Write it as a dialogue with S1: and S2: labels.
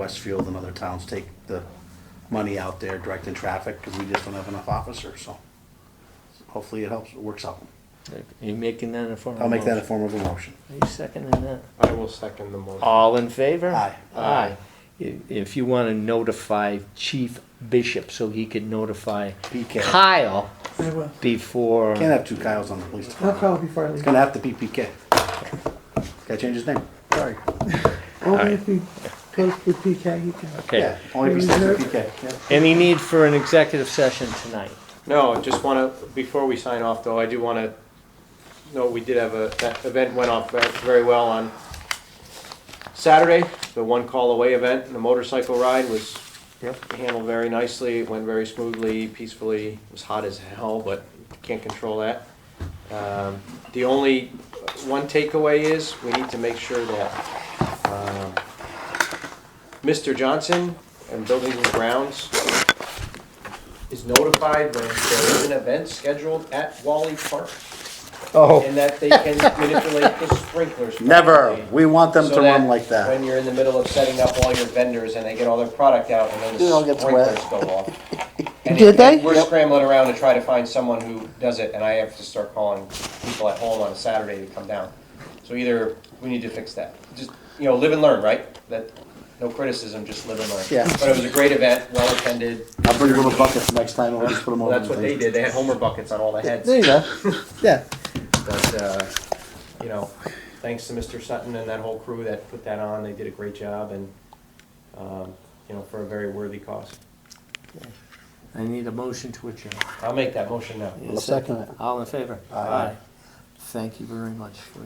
S1: Westfield and other towns take the money out there directing traffic because we just don't have enough officers, so hopefully it helps, it works out.
S2: Are you making that a form of
S1: I'll make that a
S2: motion?
S1: form of a motion.
S2: Are you seconding that?
S3: I will second the motion.
S2: All in favor?
S1: Aye.
S2: Aye. I- If you want to notify Chief Bishop so he could notify
S1: PK.
S2: Kyle
S4: I will.
S2: before.
S1: Can't have two Kyles on the police
S4: I'll
S1: department.
S4: call before I
S1: It's
S4: leave.
S1: gonna have to be PK. Gotta change his name. Sorry.
S4: Only if he goes through PK, he can.
S2: Okay.
S1: Yeah, only if he says PK. yeah.
S2: Any need for an executive session tonight?
S3: No, just want to, before we sign off though, I do want to, no, we did have a, that event went off ve- very well on Saturday, the one call away event, and the motorcycle ride was handled very nicely, it went very smoothly, peacefully, it was hot as hell, but can't control that. Um, The only, one takeaway is, we need to make sure that um, Mr. Johnson and Buildings and Grounds is notified when there is an event scheduled at Wally Park,
S2: Oh.
S3: and that they can manipulate the sprinklers.
S1: Never,
S3: properly.
S1: we want them
S3: So
S1: to run
S3: that
S1: like that.
S3: When you're in the middle of setting up all your vendors and they get all their product out and
S1: It all
S3: then the
S1: gets wet.
S3: sprinklers go off. And
S4: Did
S3: it-
S4: they?
S3: We're
S4: Yep.
S3: scrambling around to try to find someone who does it and I have to start calling people at home on a Saturday to come down. So either we need to fix that. Just, you know, live and learn, right? That, no criticism, just live and learn.
S1: Yeah.
S3: But it was a great event, well attended.
S1: I'll bring little buckets next time and we'll just put them
S3: Well,
S1: over.
S3: that's what
S1: the
S3: they
S1: thing.
S3: did. They had Homer buckets on all the heads.
S1: There you go, yeah.
S3: But, uh, you know, thanks to Mr. Sutton and that whole crew that put that on, they did a great job and, um, you know, for a very worthy cause.
S2: I need a motion to adjourn.
S3: I'll make that motion now.
S1: I'll second it.
S2: All in favor?
S1: Aye.
S2: Thank you very much for